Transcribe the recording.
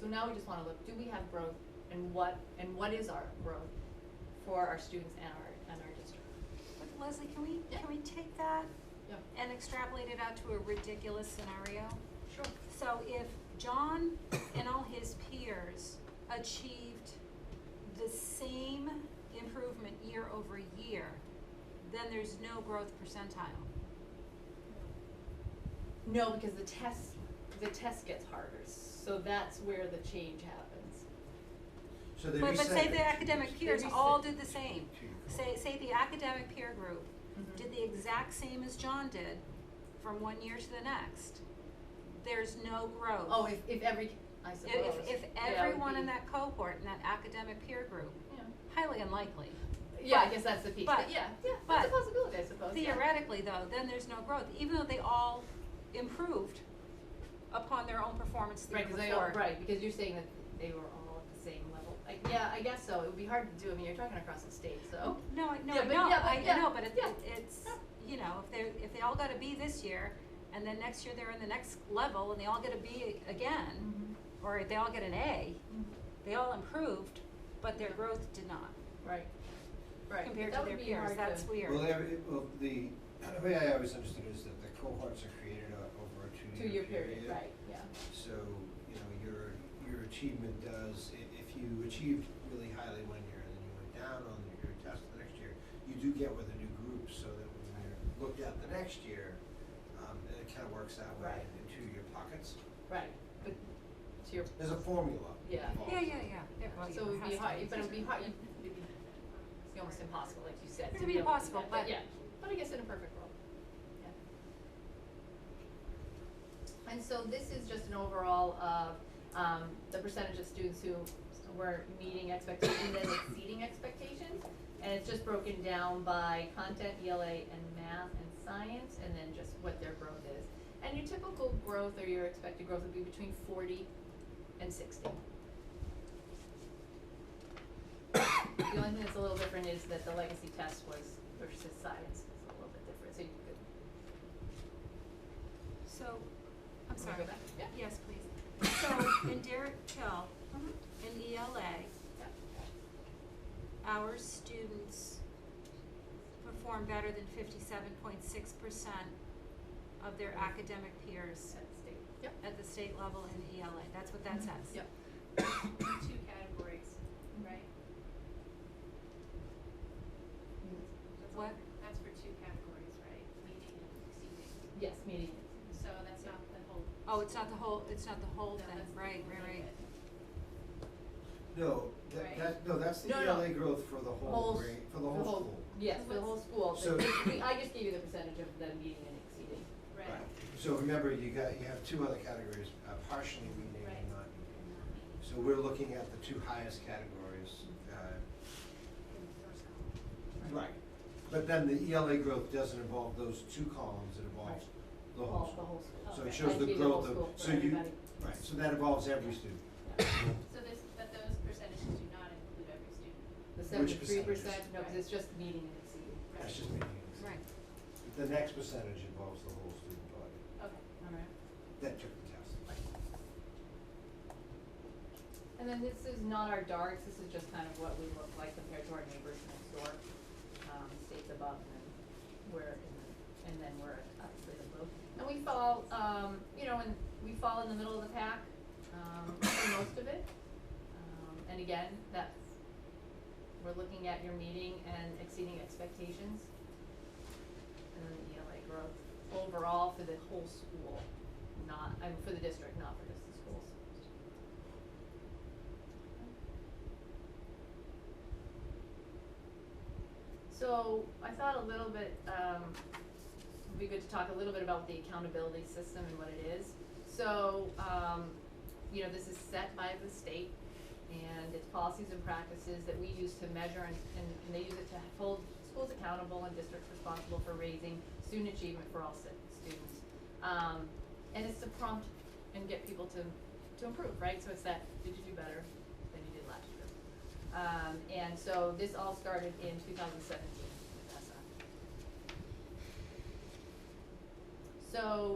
So now we just wanna look, do we have growth and what, and what is our growth for our students and our, and our district? But Leslie, can we, Yeah. can we take that Yeah, and extrapolate it out to a ridiculous scenario? sure. So if John and all his peers achieved the same improvement year over year, then there's no growth percentile. No, because the test, the test gets harder, so that's where the change happens. So they But, reset but say it. the academic peers reset. all did the same. To your point. Say, say the academic peer group Mhm. did the exact same as John did from one year to the next. There's no growth. Oh, if, if every, I If- suppose. If, if Yeah, it would everyone in be- that cohort, in that academic peer group, Yeah, highly unlikely. yeah, I But- guess that's the piece, but- but yeah, yeah, that's but a possibility, I suppose, Oh, yeah. Theoretically, though, then there's no growth, even though they all improved upon their own performance the year Right, because before. they all, right, because you're saying that they were all at the same level, like, yeah, I guess so, it would be hard to do, I mean, you're talking across the state, so. No, I, no, Oh. Yeah, I but- know, yeah, but- I, I yeah, know, but it, yeah. it's, Yeah. you know, if they, if they all got a B this year, and then next year they're in the next level, and they all get a B again, Mm-hmm. or they all get an A, they all improved, but their growth did not, Right, right. compared to That their would be peers, hard that's to- weird. Well, every, well, the, the way I always understood is that the cohorts are created o- over a Two year period, right, yeah. So, you know, your, your achievement does, i- if you achieved really highly one year and then you went down on your test the next year, you do get with a new group so that when you're looked at the next year, um, it kind of works that way Right. in two-year pockets. Right, but to your, There's a formula Yeah. involved. Yeah, yeah, yeah, yeah, well, so it would has be to hard, but it would be hard, it'd be, it's almost impossible, like you said. It'd to be be able to do impossible, that, but- Yeah, but I guess in a perfect world, yeah. And so this is just an overall of, um, the percentage of students who were meeting expectations and exceeding expectations. And it's just broken down by content, ELA, and math and science, and then just what their growth is. And your typical growth or your expected growth would be between forty and sixty. The only thing that's a little different is that the legacy test was versus science is a little bit different, so you could. So, I'm Wanna sorry. go back? Yeah. Yes, please. So, in Derek Hill, in ELA, Yeah. our students perform better than fifty-seven point six percent of their academic peers Set the state. Yep. at the state level in ELA. That's what that says. Mm-hmm. Yep. two categories, right? That's all- What? That's for two categories, right? Meeting and exceeding. Yes, meeting. So that's not the whole. Oh, it's not the whole, it's not the whole No, thing, that's right, right, only right. it. No, that, Right. that, no, that's the No, no. ELA growth for the whole Whole s- grade, for the whole school. Yes, for the whole school. So- But we- I just gave you the percentage of them meeting and exceeding. Right. Right, so remember, you got, you have two other categories, uh, partially meeting Right. and not meeting. And not meeting So we're looking at the two highest categories, uh, in the first column. right. But then the ELA growth doesn't involve those two columns, it involves Right. the All- whole school. school. So Okay. it shows I the gave whole growth school of, for so you, everybody. right, so that involves every student. So this, but those percentages do not include every student, The Which seventy-three percent, percentages? no, 'cause it's just meeting and exceeding. right? That's just meeting. Right. The next percentage involves the whole student body Okay. All right. that took the test. And then this is not our darks, this is just kind of what we look like compared to our neighbors next door, um, states above, and then we're in the, and then we're obviously the blue. And we fall, um, you know, and we fall in the middle of the pack, um, for most of it. Um, and again, that's, we're looking at your meeting and exceeding expectations. And then the ELA growth overall for the whole school, not, I mean, for the district, not for just the schools. So I thought a little bit, um, it'd be good to talk a little bit about the accountability system and what it is. So, um, you know, this is set by the state and it's policies and practices that we use to measure and, and and they use it to hold schools accountable and districts responsible for raising student achievement for all si- students. Um, and it's to prompt and get people to, to improve, right? So it's that, did you do better than you did last year? Um, and so this all started in two thousand seventeen with ESSA. So